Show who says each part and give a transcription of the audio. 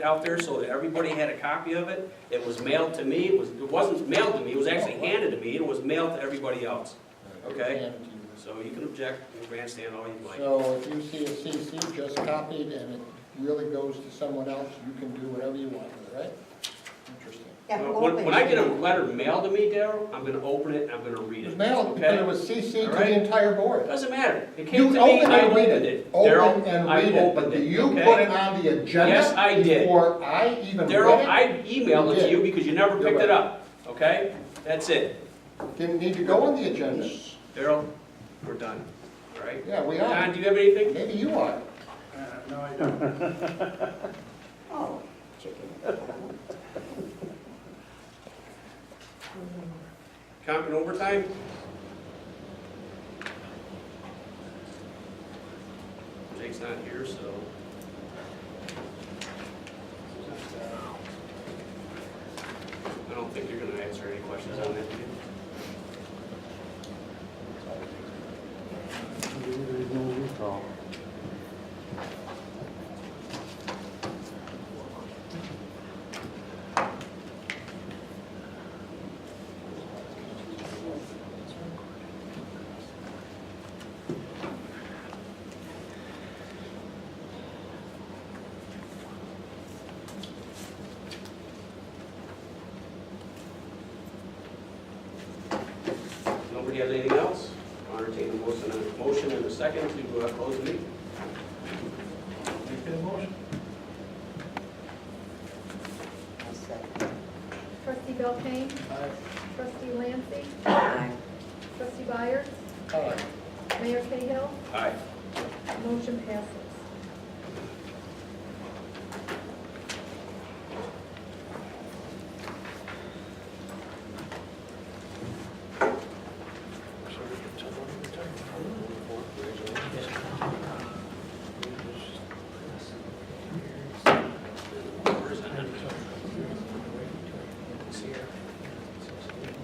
Speaker 1: out there so that everybody had a copy of it. It was mailed to me, it was, it wasn't mailed to me, it was actually handed to me, it was mailed to everybody else. Okay.
Speaker 2: Hand it to you.
Speaker 1: So you can object and grandstand all you like.
Speaker 2: So if you see a CC just copied and it really goes to someone else, you can do whatever you want, with it, right? Interesting.
Speaker 3: Yeah, who
Speaker 1: Uh, When, when I
Speaker 3: opened
Speaker 1: get
Speaker 3: it?
Speaker 1: a letter mailed to me, Daryl, I'm gonna open it and I'm gonna read
Speaker 2: It was
Speaker 1: it.
Speaker 2: mailed, but it
Speaker 1: Okay?
Speaker 2: was CC to
Speaker 1: All right.
Speaker 2: the entire board.
Speaker 1: Doesn't matter. It came
Speaker 2: You
Speaker 1: to me,
Speaker 2: open
Speaker 1: I
Speaker 2: and read
Speaker 1: opened
Speaker 2: it,
Speaker 1: it.
Speaker 2: open
Speaker 1: Daryl,
Speaker 2: and
Speaker 1: I
Speaker 2: read it, but
Speaker 1: opened
Speaker 2: do
Speaker 1: it,
Speaker 2: you
Speaker 1: okay?
Speaker 2: put it on the agenda?
Speaker 1: Yes, I did.
Speaker 2: Before I even
Speaker 1: Daryl,
Speaker 2: read
Speaker 1: I emailed it to you because you never
Speaker 2: You're
Speaker 1: picked it
Speaker 2: right.
Speaker 1: up, okay? That's it.
Speaker 2: it? Didn't need to go on the agenda.
Speaker 1: Daryl, we're done, all right?
Speaker 2: Yeah, we
Speaker 1: Don,
Speaker 2: are.
Speaker 1: do you have anything?
Speaker 2: Maybe you are.
Speaker 3: Oh, chicken.
Speaker 1: Counting overtime? Jake's not here, so. I don't think you're gonna answer any questions on that, do you? Nobody has anything else? I'll entertain a motion, a motion and a second to uh, close the meeting.
Speaker 3: I'll second.
Speaker 4: Trustee Belkane? Trustee Lancy?
Speaker 3: Aye.
Speaker 4: Trustee Byers?
Speaker 2: All right.
Speaker 4: Mayor Cahill?
Speaker 1: Aye.
Speaker 4: Motion passes.